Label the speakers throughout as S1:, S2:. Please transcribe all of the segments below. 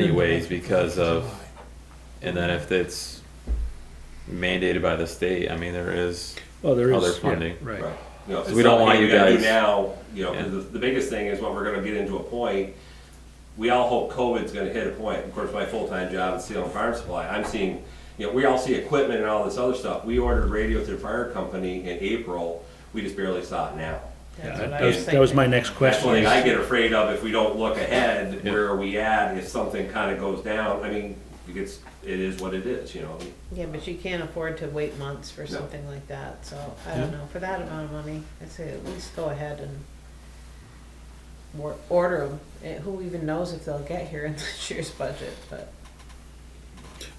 S1: anyways because of, and then if it's mandated by the state, I mean, there is,
S2: Well, Oh, there is.
S1: Other
S2: yeah,
S1: funding.
S2: Right.
S3: You know, if
S1: So
S3: it's
S1: we don't
S3: something
S1: want you
S3: we gotta do
S1: guys-
S3: Now, you know, 'cause
S1: Yeah.
S3: the, the biggest thing is what we're gonna get into a point, we all hope COVID's gonna hit a point, of course, my full-time job is stealing farm supply, I'm seeing, you know, we all see equipment and all this other stuff, we ordered radio through fire company in April, we just barely saw it now.
S2: Yeah,
S4: That's
S2: that
S4: what I
S2: that was, that was my
S4: thinking.
S2: next
S3: That's
S2: question.
S3: one thing I
S2: is-
S3: get afraid of, if we don't look ahead,
S1: Yeah.
S3: where are we at, if something kinda goes down, I mean, it's, it is what it is, you know?
S4: Yeah, but you can't afford to wait months for
S3: No.
S4: something like that, so I don't know, for that amount of money, I'd say at least go ahead and wor- order them, who even knows if they'll get here in this year's budget, but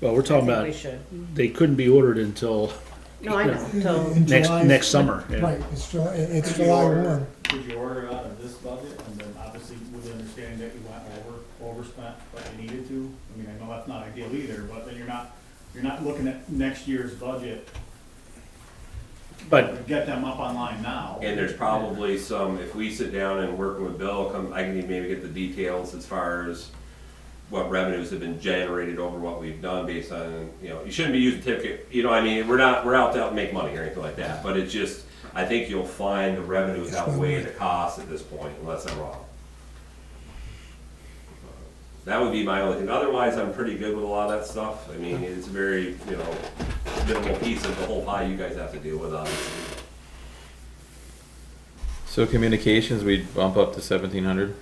S2: Well, we're
S4: I
S2: talking
S4: think we
S2: about,
S4: should.
S2: they couldn't be ordered until,
S4: No, I know, so,
S5: In
S2: Next-
S5: July-
S2: next summer, yeah.
S5: Right, it's July, it's
S6: Could you
S5: July
S6: order-
S5: one.
S6: Could you order out of this budget, and then obviously with the understanding that you went over, overspent what you needed to? I mean, I know that's not ideal either, but then you're not, you're not looking at next year's budget,
S2: but
S6: get them up online now.
S3: And there's probably some, if we sit down and working with Bill, come, I can maybe get the details as far as what revenues have been generated over what we've done based on, you know, you shouldn't be using tip, you know, I mean, we're not, we're out to make money or anything like that, but it's just, I think you'll find the revenues outweigh the costs at this point, unless I'm wrong. That would be my only thing, otherwise, I'm pretty good with a lot of that stuff, I mean, it's a very, you know, minimal piece of the whole pie you guys have to deal with, obviously.
S1: so communications, we bump up to seventeen hundred?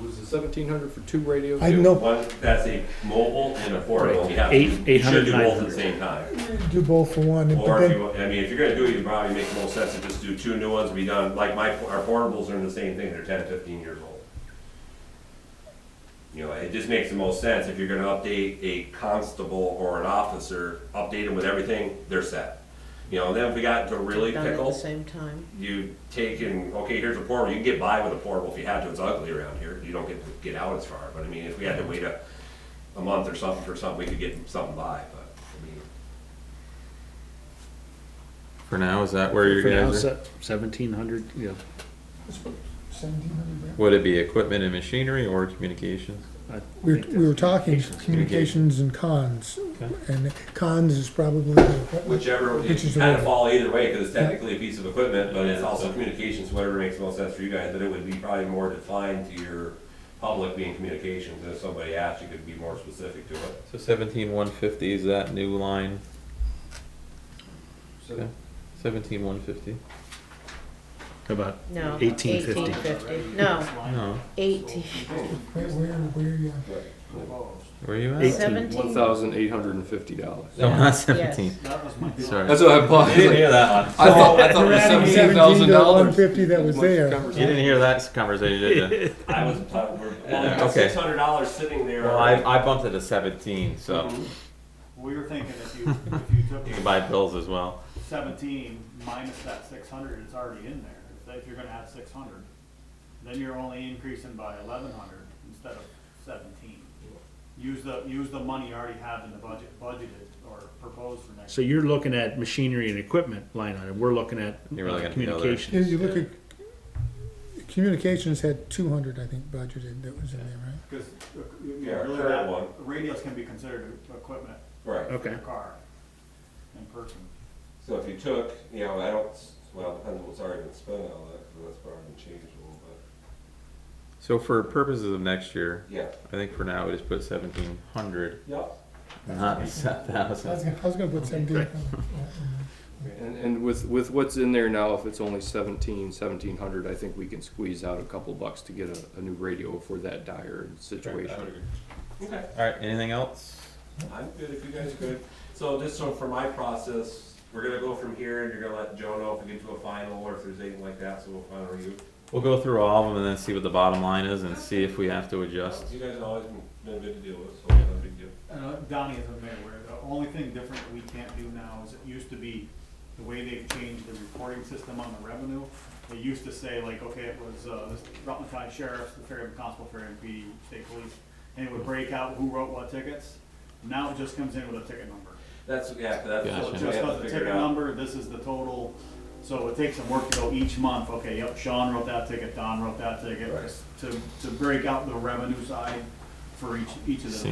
S7: Was the seventeen hundred for two radios?
S5: I know,
S3: One, that's a mobile and a portable, you have to,
S2: Eight-
S3: you
S2: eight
S3: should
S2: hundred,
S3: do
S2: nine
S3: both at the
S2: hundred.
S3: same time.
S5: do both for one, but
S3: Or if
S5: then,
S3: you, I mean, if you're gonna do it, you probably make more sense to just do two new ones, be done, like my, our portables are in the same thing, they're ten, fifteen years old. You know, it just makes the most sense, if you're gonna update a constable or an officer, update them with everything, they're set. You know, then if we got to really
S4: done at the
S3: pickle,
S4: same time.
S3: you take and, okay, here's a portable, you can get by with a portable if you have to, it's ugly around here, you don't get to get out as far, but I mean, if we had to wait a, a month or something for something, we could get something by, but, I mean,
S1: For now, is that where you
S2: for now,
S1: guys are?
S2: seventeen hundred, yeah,
S5: seventeen hundred.
S1: Would it be equipment and machinery or communications?
S2: I
S5: We were,
S2: think
S5: we were talking
S1: Communications.
S5: communications and cons,
S1: Okay.
S5: and cons is probably the equipment.
S3: whichever, it
S5: Which is the
S3: kind of
S5: way-
S3: fall either way, because it's technically a piece of equipment, but it's also communications, whatever makes the most sense for you guys, but it would be probably more defined to your public being communications, and if somebody asked, you could be more specific to it.
S1: So seventeen one fifty is that new line,
S7: So
S1: seventeen one fifty?
S2: About
S4: No,
S2: eighteen fifty.
S4: Eighteen fifty, no,
S1: No,
S4: eighteen,
S5: Where, where, where, you at?
S1: where you
S2: Eight-
S1: at?
S7: one
S4: seventeen,
S7: thousand eight hundred and fifty dollars.
S1: No, not seventeen,
S6: That was my.
S1: sorry.
S7: That's what I bought. I was like,
S1: that one.
S7: I thought, I thought it was
S5: Adding
S7: seventeen
S5: 17
S7: thousand
S5: to one
S7: dollars.
S5: fifty that was there.
S1: You didn't hear that conversation, did you?
S3: I was, uh, well,
S1: Yeah,
S3: we've got
S1: okay.
S3: six hundred dollars sitting there.
S1: Well, I, I bumped it to seventeen, so
S6: We were thinking if you, if you
S1: you
S6: took
S1: can buy pills as well.
S6: seventeen minus that six hundred, it's already in there. If that- If you're gonna add six hundred, then you're only increasing by eleven hundred instead of seventeen. Use the, use the money you already have in the budget, budgeted or proposed for next
S2: So
S6: year.
S2: you're looking at machinery and equipment line item, we're looking at
S1: You're looking
S2: uh,
S1: at the other.
S2: communications.
S5: If you look at, communications had two hundred, I think, budgeted that was in there, right?
S6: Because, uh, you
S3: Yeah,
S6: know, really
S3: third
S6: that,
S3: one.
S6: radios can be considered equipment
S3: Right.
S6: for
S2: Okay,
S6: your car in person.
S3: So if you took, you know, I don't, s- well, it depends on what's already been spent on that, because that's probably been changed a little bit.
S1: So for purposes of next year,
S3: Yeah.
S1: I think for now we just put seventeen hundred,
S3: Yep.
S1: not seven
S5: I was
S1: thousand.
S5: gonna, I was gonna put seventeen.
S2: Right.
S7: And, and with, with what's in there now, if it's only seventeen, seventeen hundred, I think we can squeeze out a couple bucks to get a, a new radio for that dire situation.
S3: Okay.
S1: All right, anything else?
S3: I'm good if you guys are good. So just so for my process, we're gonna go from here and you're gonna let Joe know if we get to a final or if there's anything like that, so we'll final you.
S1: We'll go through all of them and then see what the bottom line is and see if we have to adjust.
S3: You guys have always been- been good to deal with, so it's not a big deal.
S6: And uh, Donnie is a mayor, where the only thing different we can't do now is it used to be, the way they've changed the reporting system on the revenue, they used to say like, okay, it was, uh, this Rutland County Sheriff's, the Fairhaven Constable, Fairhaven PD, State Police, and it would break out who wrote what tickets. Now it just comes in with a ticket number.
S3: That's, yeah, that's.
S1: Gotcha.
S6: So
S3: we have
S6: it just
S3: to
S6: does the
S3: figure it
S6: ticket
S3: out.
S6: number, this is the total, so it takes some work to go each month, okay, yep, Sean wrote that ticket, Don wrote that ticket,
S3: Right.
S6: to, to break out the revenue side.
S8: for each, each of the.
S6: See.